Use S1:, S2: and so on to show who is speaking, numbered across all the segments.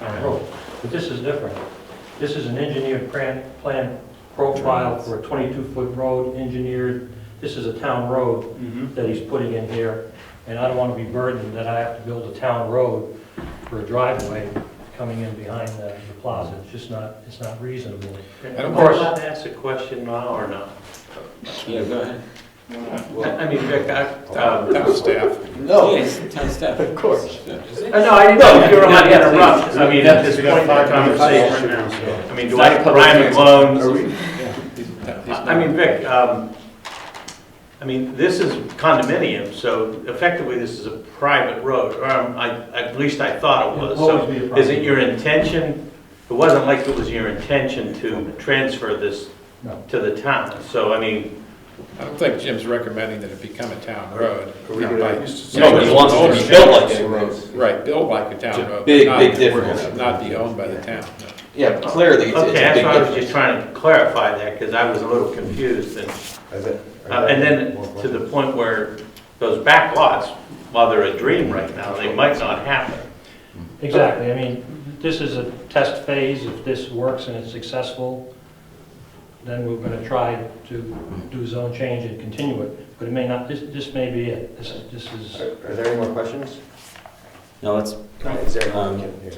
S1: on the road. But this is different. This is an engineered plan, plan profile for a 22-foot road, engineered. This is a town road
S2: Mhm.
S1: that he's putting in here, and I don't want to be burdened that I have to build a town road for a driveway coming in behind the the plaza. It's just not, it's not reasonable.
S2: Am
S1: course.
S2: I allowed to ask a question now or not?
S3: Yeah, go ahead. Well,
S2: I mean, Vic, I, um,
S4: Town staff.
S3: no. Yes, town staff. Of course.
S2: I know, Uh, I didn't know if you were allowed to interrupt. I mean, at this
S4: We got
S2: point in
S4: five
S2: the
S4: conversations
S2: conversation,
S4: now, so.
S2: I mean, do I put Ryan
S4: Are we-
S2: McClone?
S4: I
S2: I mean, Vic, um, I mean, this is condominium, so effectively this is a private road, or um, I, at least I thought it was.
S1: It'll always
S2: So
S1: be a private
S2: is it your intention, it wasn't like it was your intention to transfer this
S1: No.
S2: to the town, so I mean,
S4: I don't think Jim's recommending that it become a town road. No, by-
S3: No, he wants it to be built like a road.
S4: Right, built like a town road.
S3: Big,
S4: not-
S3: big difference.
S4: Not be owned by the town. no.
S3: Yeah, clearly, it's
S2: Okay,
S3: it's a
S2: that's
S3: big
S2: why I was just
S3: difference.
S2: trying to clarify that, because I was a little confused, and, uh, and then to the point where those back lots, while they're a dream right now, they might not happen.
S1: Exactly, I mean, this is a test phase, if this works and it's successful, then we're gonna try to do zone change and continue it, but it may not, this, this may be it, this is, this is,
S5: Are there any more questions?
S3: No, it's
S5: Is there
S3: Um,
S5: anyone here?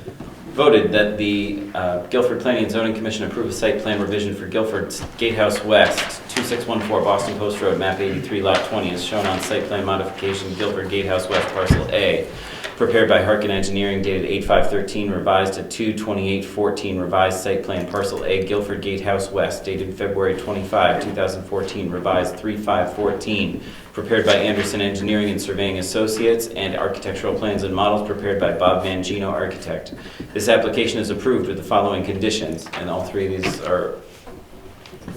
S3: voted that the uh, Guilford Planning and Zoning Commission approve a site plan revision for Guilford's Gatehouse West, 2614 Boston Post Road, map 83, lot 20, as shown on site plan modification Guilford Gatehouse West, parcel A, prepared by Harkin Engineering dated 8513, revised to 22814, revised site plan parcel A, Guilford Gatehouse West, dated February 25, 2014, revised 3514, prepared by Anderson Engineering and Surveying Associates, and architectural plans and models prepared by Bob Mangino Architect. This application is approved with the following conditions, and all three of these are,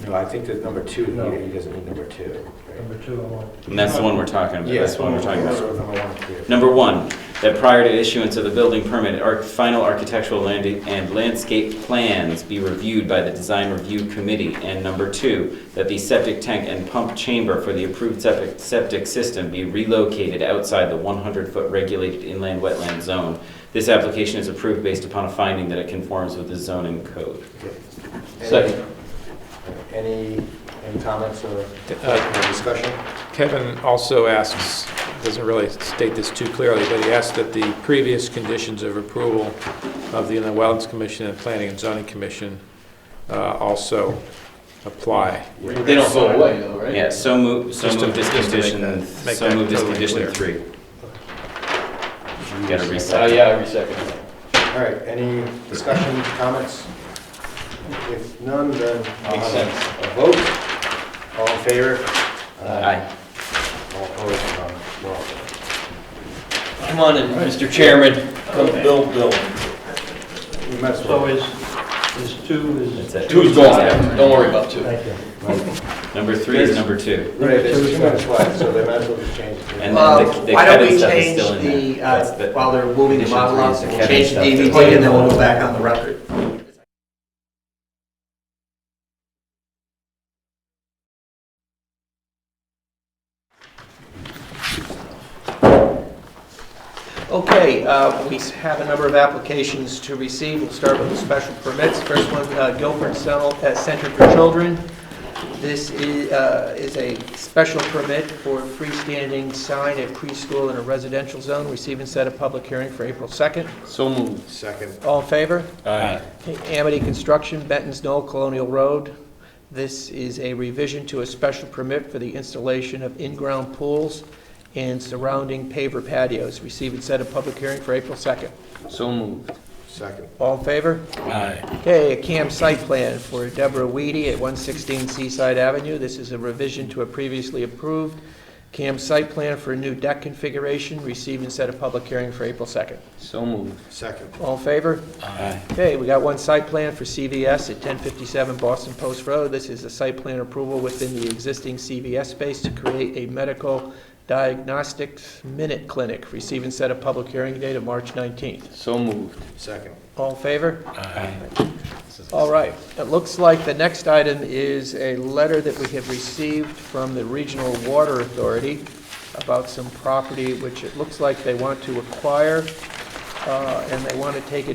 S5: No, I think that number two,
S1: No.
S5: he he doesn't need number two. right?
S1: number two, I want.
S3: and that's the one we're talking about, that's the one we're talking about.
S5: Number one, clear.
S3: Number one, that prior to issuance of the building permit, our final architectural land- and landscape plans be reviewed by the design review committee. And number two, that the septic tank and pump chamber for the approved septic, septic system be relocated outside the 100-foot regulated inland wetland zone. This application is approved based upon a finding that it conforms with the zoning code.
S5: Any-
S3: Second.
S5: Any, any comments or
S4: Uh,
S5: or discussion?
S4: Kevin also asks, doesn't really state this too clearly, but he asked that the previous conditions of approval of the Inland Wetlands Commission and Planning and Zoning Commission uh, also apply.
S3: They don't go away, though, right? Yeah, so move, so
S4: Just to-
S3: move this
S4: just to make
S3: condition,
S4: that- make
S3: so
S4: that
S3: move this
S4: totally
S3: condition
S4: clear.
S3: three. You Gotta reset.
S4: Oh,
S5: All right, any discussion, comments? If none, then I'll
S3: Makes
S5: have a vote. All in favor?
S3: Aye.
S5: All opposed? None. We're all good.
S6: Come on in, Mr. Chairman. Come build, build.
S5: We might as
S1: So
S5: well.
S1: is, is two,
S3: That's
S1: is,
S3: it.
S6: Two's gone, don't worry about two.
S1: thank you.
S3: Number three is number two.
S5: Right, there's two minutes left, so they might as well just change it.
S3: And
S7: Well,
S3: then the- the
S7: Uh, why don't
S3: Kevin
S7: we
S3: stuff is
S7: change
S3: still in there.
S7: the,
S3: That's
S7: uh,
S3: the-
S7: while they're moving the
S3: condition
S7: model
S3: three
S7: up,
S3: is the
S7: we'll
S3: Kevin
S7: change the
S3: stuff.
S7: DVD and then we'll go back on the record. Okay, uh, we have a number of applications to receive. We'll start with the special permits. First one, uh, Guilford Cel- uh, Center for Children. This is uh, is a special permit for freestanding sign at preschool in a residential zone. Receive and set a public hearing for April 2nd.
S6: So moved.
S5: Second.
S7: All in favor?
S3: Aye.
S7: Amity Construction, Benton's Knoll Colonial Road. This is a revision to a special permit for the installation of in-ground pools and surrounding paver patios. Receive and set a public hearing for April 2nd.
S6: So moved.
S5: Second.
S7: All in favor?
S3: Aye.
S7: Okay, a CAM site plan for Deborah Weedy at 116 Seaside Avenue. This is a revision to a previously approved CAM site plan for a new deck configuration. Receive and set a public hearing for April 2nd.
S6: So moved.
S5: Second.
S7: All in favor?
S3: Aye.
S7: Okay, we got one site plan for CVS at 1057 Boston Post Road. This is a site plan approval within the existing CVS space to create a medical diagnostics minute clinic. Receive and set a public hearing date of March 19th.
S6: So moved.
S5: Second.
S7: All in favor? All right. It looks like the next item is a letter that we have received from the Regional Water Authority about some property which it looks like they want to acquire, uh, and they want to take it.